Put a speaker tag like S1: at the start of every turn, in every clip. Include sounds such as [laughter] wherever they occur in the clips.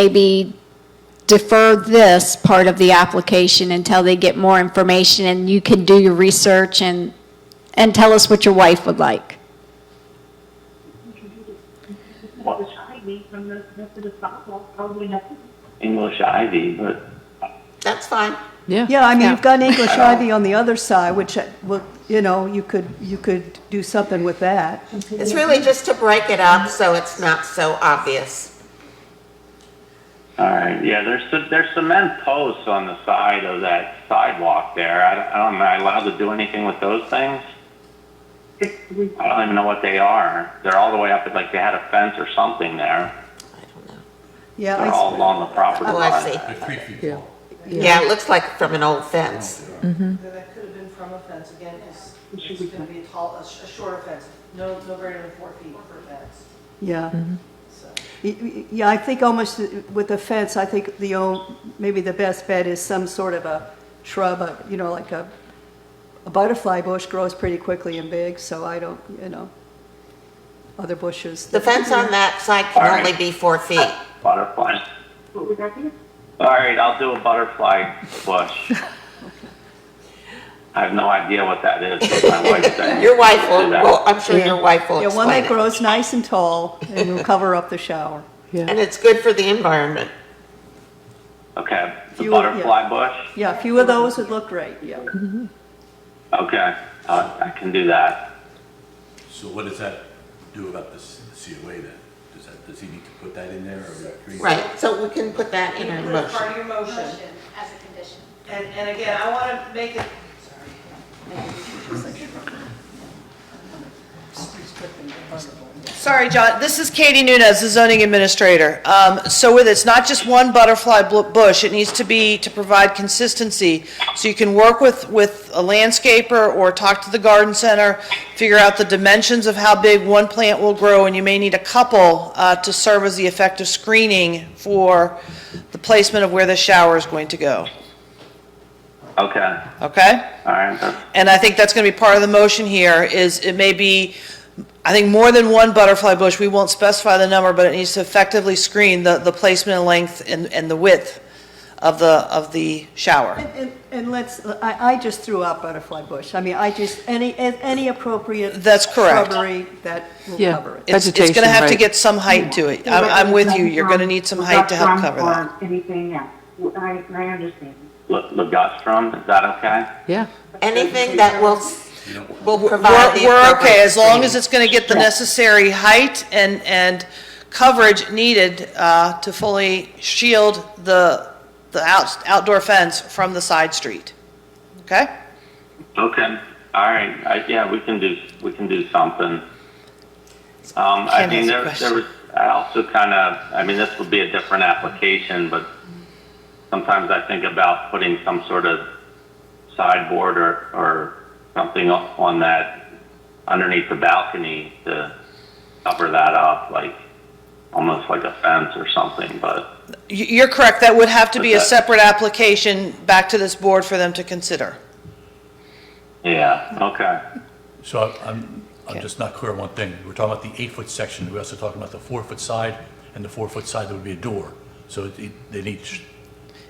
S1: maybe defer this part of the application until they get more information and you can do your research and, and tell us what your wife would like.
S2: English Ivy from the Method of Bible, probably nothing.
S3: English Ivy, but
S4: That's fine.
S5: Yeah.
S6: Yeah, I mean,
S1: Yeah.
S6: you've got English ivy on the other side, which, uh, well, you know, you could, you could do something with that.
S4: It's really just to break it up so it's not so obvious.
S3: all right, yeah. There's ce- there's cement posts on the side of that sidewalk there. I, don't- I don't. Am I allowed to do anything with those things?
S2: It's we
S3: I don't even know what they are. They're all the way up. Like they had a fence or something there.
S4: I don't know.
S6: Yeah,
S3: They're all
S6: Oh, I-
S3: along the property
S4: Oh,
S3: line.
S4: I see. Yeah, it looks like from an old fence.
S7: Yeah, That could have been from a fence, again, it's, it's gonna be a tall, a sh- a shorter fence, no, no greater than four feet per fence,
S6: yeah.
S1: Mm-hmm.
S7: so.
S6: Y- y- Yeah, I think almost uh, with the fence, I think the, o- maybe the best bet is some sort of a shrub, a- you know, like a, a butterfly bush grows pretty quickly and big, so I don't, you know, other bushes.
S4: The fence on that side
S3: All
S4: can
S3: right.
S4: only be four feet.
S3: Butterfly.
S2: what would that be?
S3: All right, I'll do a butterfly bush. I have no idea what that is. But my wife said
S4: Your wife will,
S3: do that.
S4: will- I'm sure your wife will
S6: Yeah,
S4: explain
S6: one that
S4: it.
S6: grows nice and tall and will cover up the shower.
S4: And it's good for the environment.
S3: Okay, the
S6: You- yeah.
S3: butterfly bush.
S6: Yeah, a few of those would look great, yeah.
S3: Okay, uh, I can do that.
S8: So what does that do about this COA then? Does that, does he need to put that in there or? agree?
S4: Right, so we can put that in our
S7: Put it part
S4: motion.
S7: of your motion,
S1: As a condition.
S7: and, and again, I wanna make it, sorry. make it- Sorry, John, this is Katie Nunez, the zoning administrator. Um, so with, it's not just one butterfly bl- bush, it needs to be to provide consistency. So you can work with, with a landscaper or talk to the garden center, figure out the dimensions of how big one plant will grow, and you may need a couple, uh, to serve as the effective screening for the placement of where the shower is going to go,
S3: Okay,
S7: okay?
S3: all right, that's
S7: And I think that's going to be part of the motion here, is it may be, I think, more than one butterfly bush. We won't specify the number, but it needs to effectively screen the, the placement and length and, and the width of the, of the shower.
S6: And- And, and let's, I, I just threw out butterfly bush. I mean, I just, any, any appropriate.
S7: That's correct.
S6: Shrubbery that will
S5: Yeah.
S6: cover it.
S7: It's, it's going to
S5: Vegetation,
S7: have to
S5: right.
S7: get some height to it. I'm, I'm with you, you're going to need some height to help cover that.
S2: Or Anything else, I, I understand.
S3: Le- Legustrum, is that okay?
S5: Yeah.
S4: Anything that will, s- will provide
S7: We're,
S4: the
S7: we're okay,
S4: appropriate
S7: as long as
S4: screening.
S7: it's going to get the necessary height and, and coverage needed uh, to fully shield the, the outs- outdoor fence from the side street. Okay?
S3: Okay, all right, I, yeah, we can do, we can do something. Um, I
S7: Ken
S3: mean,
S7: has a
S3: there,
S7: question.
S3: there was, I also kind of, I mean, this would be a different application, but sometimes I think about putting some sort of sideboard or, or something up on that, underneath the balcony to cover that up, like, almost like a fence or something, but.
S7: You- You're correct, that would have to be a
S3: Okay.
S7: separate application back to this board for them to consider.
S3: Yeah, okay.
S8: So I'm- I'm, I'm just not clear on one thing. We're talking about the eight-foot section, we're also talking about the four-foot side, and the four-foot side, there would be a door. So it- it- they need sh-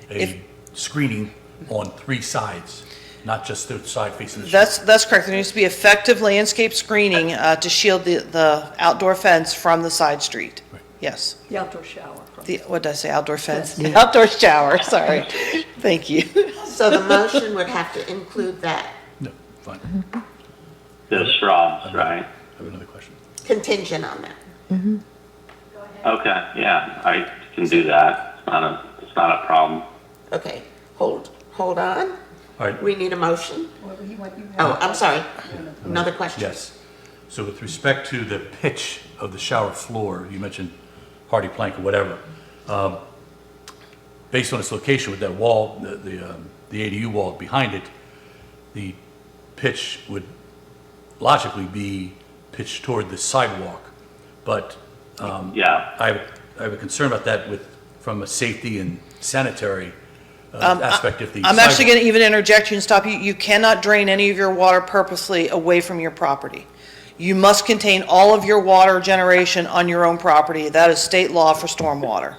S7: If-
S8: a screening on three sides, not just the side facing the street.
S7: That's, that's correct, there needs to be effective landscape screening uh, to shield the, the outdoor fence from the side street.
S8: Right.
S7: Yes,
S6: The outdoor shower.
S7: the, what did I say, outdoor fence? [laughs] Outdoor shower, sorry. Thank you.
S4: So the motion would have to include that
S8: No, fine.
S3: The shrubs, right?
S8: I have another question.
S4: contingent on that.
S3: Okay, yeah, I can do that. It's not a, it's not a problem.
S4: Okay, hold, hold on.
S8: All right,
S4: We need a motion? Oh, I'm sorry. Another question?
S8: yes. So with respect to the pitch of the shower floor, you mentioned hardy plank or whatever. um, based on its location with that wall, the, the, um, the ADU wall behind it, the pitch would logically be pitched toward the sidewalk. But
S3: Yeah,
S8: I, have- I have a concern about that with, from a safety and sanitary uh, aspect of the
S7: Um, I'm actually
S8: sidewalk.
S7: going to even interject you and stop you. You cannot drain any of your water purposely away from your property. You must contain all of your water generation on your own property. That is state law for stormwater.